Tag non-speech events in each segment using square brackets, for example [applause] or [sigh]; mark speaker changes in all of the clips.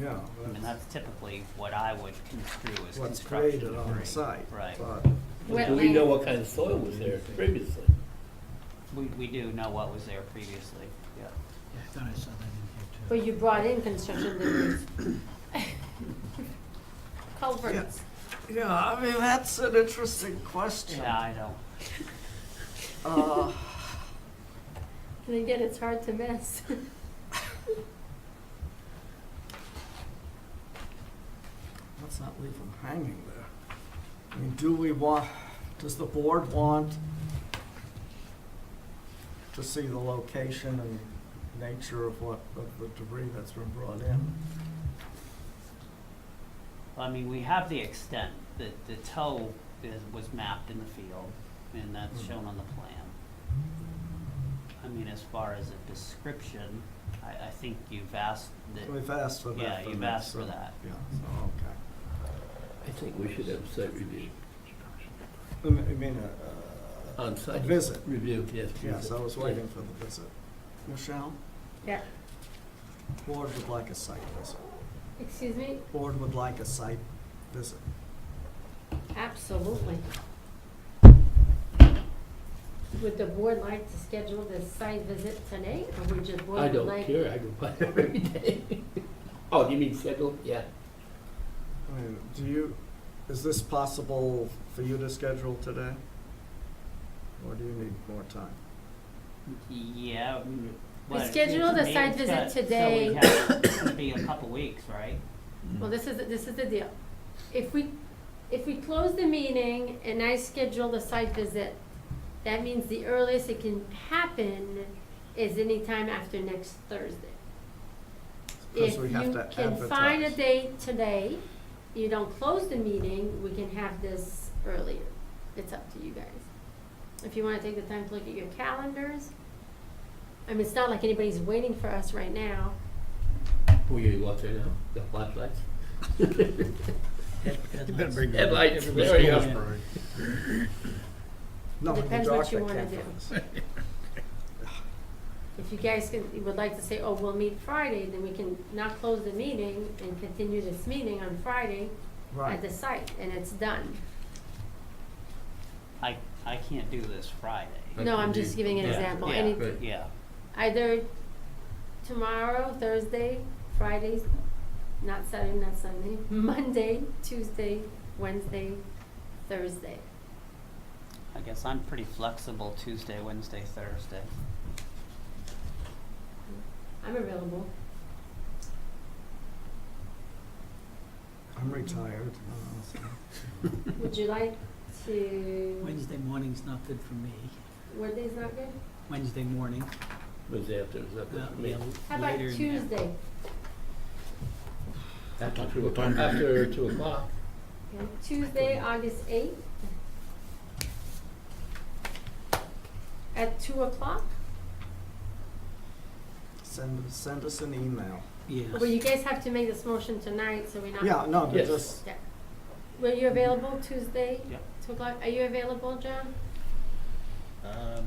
Speaker 1: yeah.
Speaker 2: And
Speaker 1: that's
Speaker 2: that's typically what I would construe as
Speaker 1: What's
Speaker 2: construction
Speaker 1: created
Speaker 2: debris.
Speaker 1: on the site.
Speaker 2: Right.
Speaker 1: but-
Speaker 3: Do we
Speaker 4: Wetland.
Speaker 3: know what kind of soil was there previously?
Speaker 2: We, we do know what was there previously, yeah.
Speaker 5: Yeah, I thought I saw that in
Speaker 4: But
Speaker 5: here too.
Speaker 4: you brought in construction debris. [coughs] Culverts.
Speaker 1: Yeah, I mean, that's an interesting question.
Speaker 2: Yeah, I don't,
Speaker 1: Uh,
Speaker 4: And again, it's hard to miss.
Speaker 1: Let's not leave them hanging there. I mean, do we want, does the board want to see the location and nature of what, of the debris that's been brought in?
Speaker 2: I mean, we have the extent, the, the toe is, was mapped in the field, and that's
Speaker 1: Mhm.
Speaker 2: shown on the plan. I mean, as far as a description, I, I think you've asked that,
Speaker 1: We've asked for that.
Speaker 2: Yeah,
Speaker 1: from
Speaker 2: you've
Speaker 1: them,
Speaker 2: asked for
Speaker 1: so-
Speaker 2: that. Mm-hmm.
Speaker 1: Yeah, so, okay.
Speaker 3: I think we should have site review.
Speaker 1: I mean- I mean, a, a- a
Speaker 3: On-site.
Speaker 1: visit.
Speaker 3: Review, yes.
Speaker 1: Yes, I
Speaker 3: visit.
Speaker 1: was waiting for the visit. Michelle,
Speaker 4: [laughs] Yeah,
Speaker 1: board would like a site visit.
Speaker 4: excuse me?
Speaker 1: Board would like a site visit.
Speaker 4: Absolutely. Would the board like to schedule this site visit tonight, or would your
Speaker 3: I
Speaker 4: board
Speaker 3: don't
Speaker 4: like?
Speaker 3: care, I go by [laughs] every day. Oh, you mean schedule? Yeah.
Speaker 1: I mean, do you, is this possible for you to schedule today? Or do you need more time?
Speaker 2: yeah. mm,
Speaker 4: We
Speaker 2: but
Speaker 4: scheduled a
Speaker 2: it's-
Speaker 4: site
Speaker 2: it's
Speaker 4: visit
Speaker 2: got- so we
Speaker 4: today.
Speaker 2: have- It's gonna be a couple weeks, right?
Speaker 4: Well, this is, this is the deal. If we, if we close the meeting and I schedule the site visit, that means the earliest it can happen is anytime after next Thursday. If
Speaker 1: Because we have
Speaker 4: you
Speaker 1: to
Speaker 4: can find a
Speaker 1: advertise.
Speaker 4: date today, you don't close the meeting, we can have this earlier. It's up to you guys. If you wanna take the time to look at your calendars, I mean, it's not like anybody's waiting for us right now.
Speaker 3: Who you watching now? The flashlights?
Speaker 5: You better bring that up.
Speaker 3: Headlights,
Speaker 5: Everybody's
Speaker 3: there you
Speaker 5: going
Speaker 3: go.
Speaker 5: in.
Speaker 1: No, the
Speaker 4: Depends what
Speaker 1: dark
Speaker 4: you
Speaker 1: I
Speaker 4: wanna
Speaker 1: can't
Speaker 4: do.
Speaker 1: focus.
Speaker 4: If you guys can, would like to say, oh, we'll meet Friday, then we can not close the meeting and continue this meeting on Friday at the
Speaker 1: Right,
Speaker 4: site, and it's done.
Speaker 2: I, I can't do this Friday.
Speaker 3: Like
Speaker 4: No, I'm
Speaker 3: you
Speaker 4: just
Speaker 3: do.
Speaker 4: giving an
Speaker 3: Yeah,
Speaker 4: example,
Speaker 2: yeah.
Speaker 4: any,
Speaker 3: Right.
Speaker 2: Yeah,
Speaker 4: either tomorrow, Thursday, Friday, not Saturday, not Sunday, [laughs] Monday, Tuesday, Wednesday, Thursday.
Speaker 2: I guess I'm pretty flexible Tuesday, Wednesday, Thursday.
Speaker 4: I'm available.
Speaker 1: I'm retired. uh, so-
Speaker 4: Would you like to,
Speaker 5: Wednesday morning's not good for me.
Speaker 4: what day's not good?
Speaker 5: Wednesday morning,
Speaker 3: Wednesday after, is that
Speaker 5: uh,
Speaker 3: what you
Speaker 5: yeah,
Speaker 3: mean?
Speaker 4: How about
Speaker 5: later in the afternoon.
Speaker 4: Tuesday?
Speaker 3: After two o'clock. After two o'clock.
Speaker 4: Okay, Tuesday, August eighth. At two o'clock?
Speaker 1: Send, send us an email.
Speaker 5: Yes.
Speaker 4: Well, you guys have to make this motion tonight, so we're not.
Speaker 1: Yeah, no, but
Speaker 3: Yes.
Speaker 1: just,
Speaker 4: Yeah. Were you available Tuesday?
Speaker 2: Yep.
Speaker 4: Two o'clock, are you available, John?
Speaker 6: Um,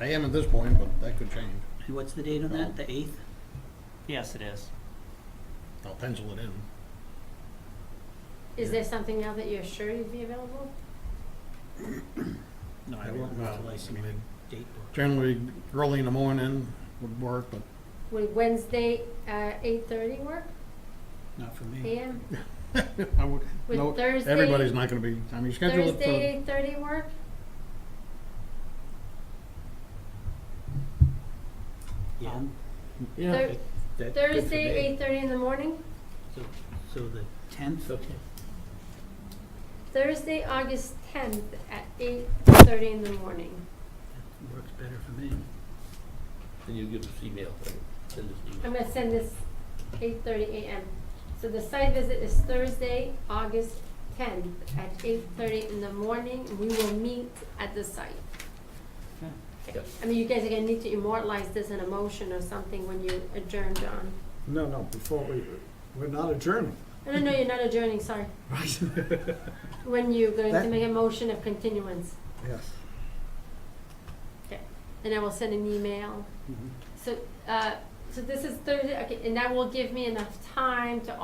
Speaker 6: I am at this point, but that could change.
Speaker 5: And what's the date on that, the eighth?
Speaker 2: Yes, it is.
Speaker 6: I'll pencil it in.
Speaker 4: Is
Speaker 6: Yeah.
Speaker 4: there something now that you're sure you'd be available?
Speaker 5: No, I won't
Speaker 6: Well,
Speaker 5: until I see
Speaker 6: I
Speaker 5: my
Speaker 6: mean,
Speaker 5: date book.
Speaker 6: Generally, early in the morning would work, but [laughs]
Speaker 4: Would Wednesday, uh, eight thirty work,
Speaker 5: Not for
Speaker 3: Mm.
Speaker 5: me.
Speaker 4: AM?
Speaker 6: I would,
Speaker 4: Would
Speaker 6: no,
Speaker 4: Thursday-
Speaker 6: everybody's not gonna be, I mean, schedule it
Speaker 4: Thursday,
Speaker 6: for,
Speaker 4: eight thirty work?
Speaker 5: Yeah,
Speaker 3: Yeah.
Speaker 4: Thir-
Speaker 3: that's good for
Speaker 4: Thursday,
Speaker 3: me.
Speaker 4: eight thirty in the morning?
Speaker 5: so, so the tenth,
Speaker 3: It's okay.
Speaker 4: Thursday, August tenth at eight thirty in the morning.
Speaker 5: that works better for me.
Speaker 3: And you give us email, right? send us
Speaker 4: I'm
Speaker 3: email.
Speaker 4: gonna send this eight thirty AM. So the site visit is Thursday, August tenth at eight thirty in the morning. We will meet at the site.
Speaker 2: Okay.
Speaker 3: Yep.
Speaker 4: I mean, you guys are gonna need to immortalize this in a motion or something when you adjourn, John.
Speaker 1: no, no, before we, we're not adjourning.
Speaker 4: No, no, no, you're not adjourning, sorry.
Speaker 1: Right.
Speaker 4: When you're going to
Speaker 1: That-
Speaker 4: make a motion of continuance.
Speaker 1: [laughs] Yes.
Speaker 4: Okay. And I will send an email. So, uh, so this is Thursday, okay, and that will give me enough time to